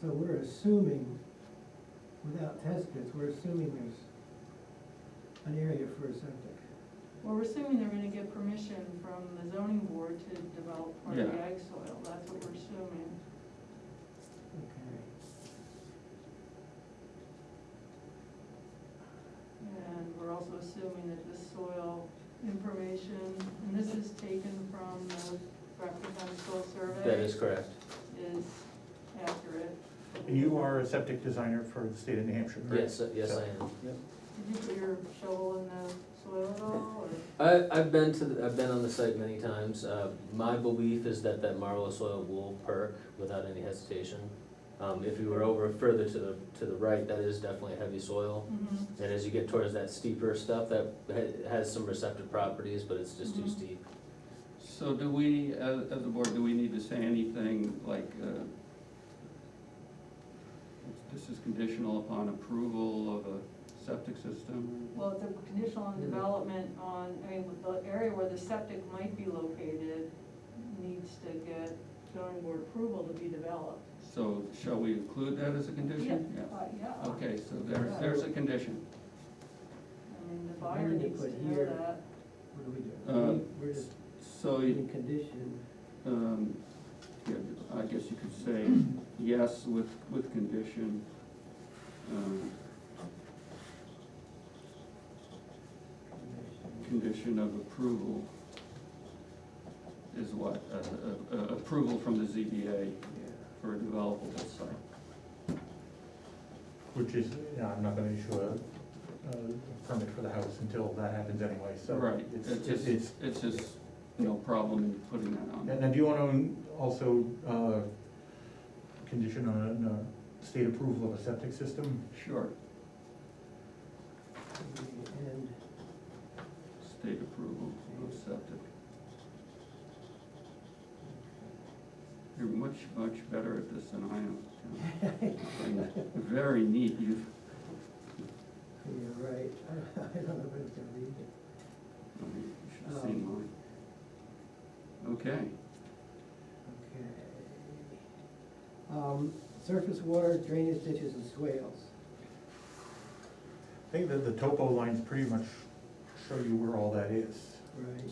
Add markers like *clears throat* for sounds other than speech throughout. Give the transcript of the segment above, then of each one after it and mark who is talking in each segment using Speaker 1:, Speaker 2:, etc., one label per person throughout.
Speaker 1: So we're assuming, without test pits, we're assuming there's an area for a septic.
Speaker 2: Well, we're assuming they're gonna get permission from the zoning board to develop part of the
Speaker 3: Yeah.
Speaker 2: ag soil, that's what we're assuming.
Speaker 1: Okay.
Speaker 2: And we're also assuming that the soil information, and this is taken from the Bradford County Soil Survey.
Speaker 3: That is correct.
Speaker 2: Is accurate.
Speaker 4: You are a septic designer for the state of New Hampshire, correct?
Speaker 3: Yes, uh, yes, I am.
Speaker 2: Did you put your shovel in the soil at all, or?
Speaker 3: I, I've been to, the- I've been on the site many times. Uh, my belief is that that marlow soil will perk without any hesitation. Um, if you were over further to the, to the right, that is definitely heavy soil.
Speaker 2: Mhm.
Speaker 3: And as you get towards that steeper stuff, that ha- has some receptive properties, but it's just too
Speaker 2: Mhm.
Speaker 3: steep.
Speaker 5: So do we, as, as a board, do we need to say anything like, uh, this is conditional upon approval of a septic system?
Speaker 2: Well, the conditional on development on, I mean, with the area where the septic might be located needs to get zoning board approval to be developed.
Speaker 5: So shall we include that as a condition?
Speaker 2: Uh, yeah.
Speaker 5: Okay, so there's, there's a condition.
Speaker 2: I mean, the buyer
Speaker 1: need to
Speaker 2: needs to
Speaker 1: put
Speaker 2: know
Speaker 1: here-
Speaker 2: that.
Speaker 1: What do we
Speaker 5: Uh,
Speaker 1: do? We- We're just
Speaker 5: So,
Speaker 1: in condition,
Speaker 5: um, yeah, I guess you could say yes with, with condition. um,
Speaker 1: condition,
Speaker 5: Condition of approval is what, Uh, uh, uh, approval from the ZBA
Speaker 1: yeah.
Speaker 5: for a developable site.
Speaker 4: Which is, you know, I'm not gonna issue a, a permit for the house until that happens anyway, so.
Speaker 5: Right,
Speaker 4: it's-
Speaker 5: it's just,
Speaker 4: It's,
Speaker 5: it's just no problem in putting that on.
Speaker 4: and then do you wanna also, uh, condition on, uh, state approval of a septic system?
Speaker 5: Sure,
Speaker 1: And
Speaker 5: state approval of septic. You're much, much better at this than I am.
Speaker 4: *laughs*
Speaker 5: Tim. Very neat, you've,
Speaker 1: You're right, *laughs* I don't know if it's gonna read it.
Speaker 5: I mean, you should have
Speaker 4: Oh.
Speaker 5: seen mine. Okay,
Speaker 1: Okay. Um, Surface water, drainage ditches and swales.
Speaker 4: I think that the topo lines pretty much show you where all that is.
Speaker 1: Right.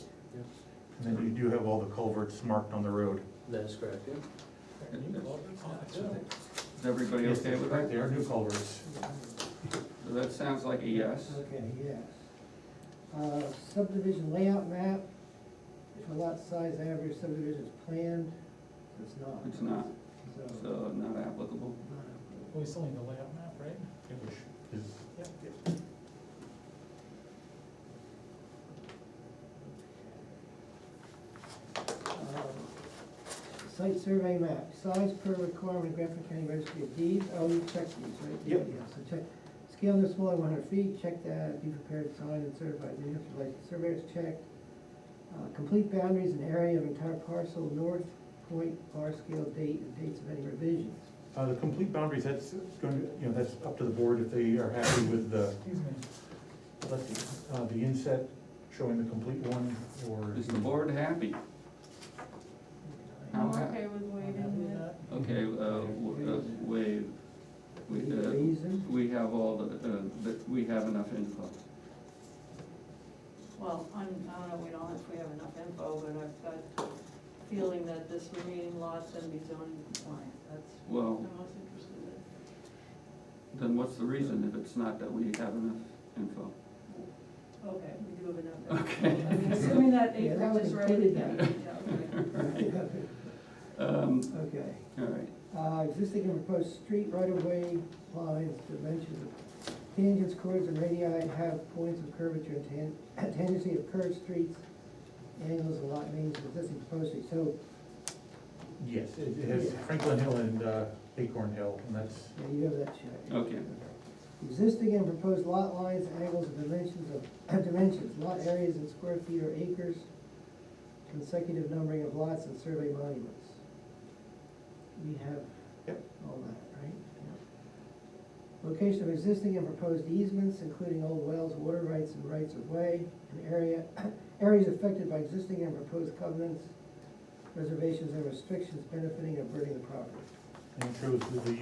Speaker 4: And then you do have all the culverts marked on the road.
Speaker 3: That is correct, yeah.
Speaker 5: is everybody
Speaker 4: Yes,
Speaker 5: okay
Speaker 4: that's
Speaker 5: with
Speaker 4: correct,
Speaker 5: that?
Speaker 4: There are new culverts.
Speaker 5: So that sounds like a yes.
Speaker 1: Okay, yes. Uh, Subdivision layout map, if a lot size average subdivision is planned, it's not.
Speaker 5: It's not,
Speaker 1: So,
Speaker 5: so not applicable.
Speaker 1: not
Speaker 6: Well, we still need the layout map, right?
Speaker 4: Which is
Speaker 1: a- um, Site survey map, size per requirement, Grafton County Registry of Deeds, oh, you checked these, right?
Speaker 4: Yep.
Speaker 1: Yeah, so check, scale no smaller than one hundred feet, check that, be prepared, signed and certified, New Hampshire licensed surveyors, check. Uh, Complete boundaries and area of entire parcel, north point, R scale, date, and dates of any revisions.
Speaker 4: Uh, the complete boundaries, that's going, to you know, that's up to the board if they are happy with the,
Speaker 6: Excuse me.
Speaker 4: let's see, uh, the inset showing the complete one, or.
Speaker 5: Is the board happy?
Speaker 2: I'm
Speaker 5: Okay.
Speaker 2: okay with waiving it.
Speaker 5: Okay, uh, w- uh, waive, we,
Speaker 1: Any
Speaker 5: uh,
Speaker 1: reason?
Speaker 5: we have all the, uh, that, we have enough info.
Speaker 2: Well, I'm, I don't know, we don't, if we have enough info, but I've got a feeling that this remaining lot's gonna be zoning compliant, that's
Speaker 5: Well,
Speaker 2: what I'm most interested in.
Speaker 5: then what's the reason if it's not that we have enough info?
Speaker 2: Okay, we do have enough.
Speaker 5: Okay.
Speaker 2: I mean, Assuming that
Speaker 1: Yeah, that
Speaker 2: acreage
Speaker 1: was
Speaker 2: is right,
Speaker 1: included
Speaker 2: yeah,
Speaker 1: there.
Speaker 2: yeah, okay.
Speaker 5: Right. Um,
Speaker 1: *laughs* Okay.
Speaker 5: all right,
Speaker 1: Uh, Existing and proposed street right-of-way lines, dimensions, tangents, chords, and radii have points of curvature and tan- *coughs* tangency of curved streets, angles, and lot names of existing proposed streets. So,
Speaker 4: Yes, it it has Franklin Hill and uh, Acorn Hill, and that's,
Speaker 1: yeah, you have that checked.
Speaker 5: okay,
Speaker 1: Existing and proposed lot lines, angles, and dimensions of, *clears throat* dimensions, lot areas in square feet or acres, consecutive numbering of lots and survey monuments. We have
Speaker 4: Yep.
Speaker 1: all that, right? Location of existing and proposed easements, including old wells, water rights and rights of way, and area, *clears throat* areas affected by existing and proposed covenants, reservations and restrictions benefiting and burdening the property.
Speaker 4: and it shows the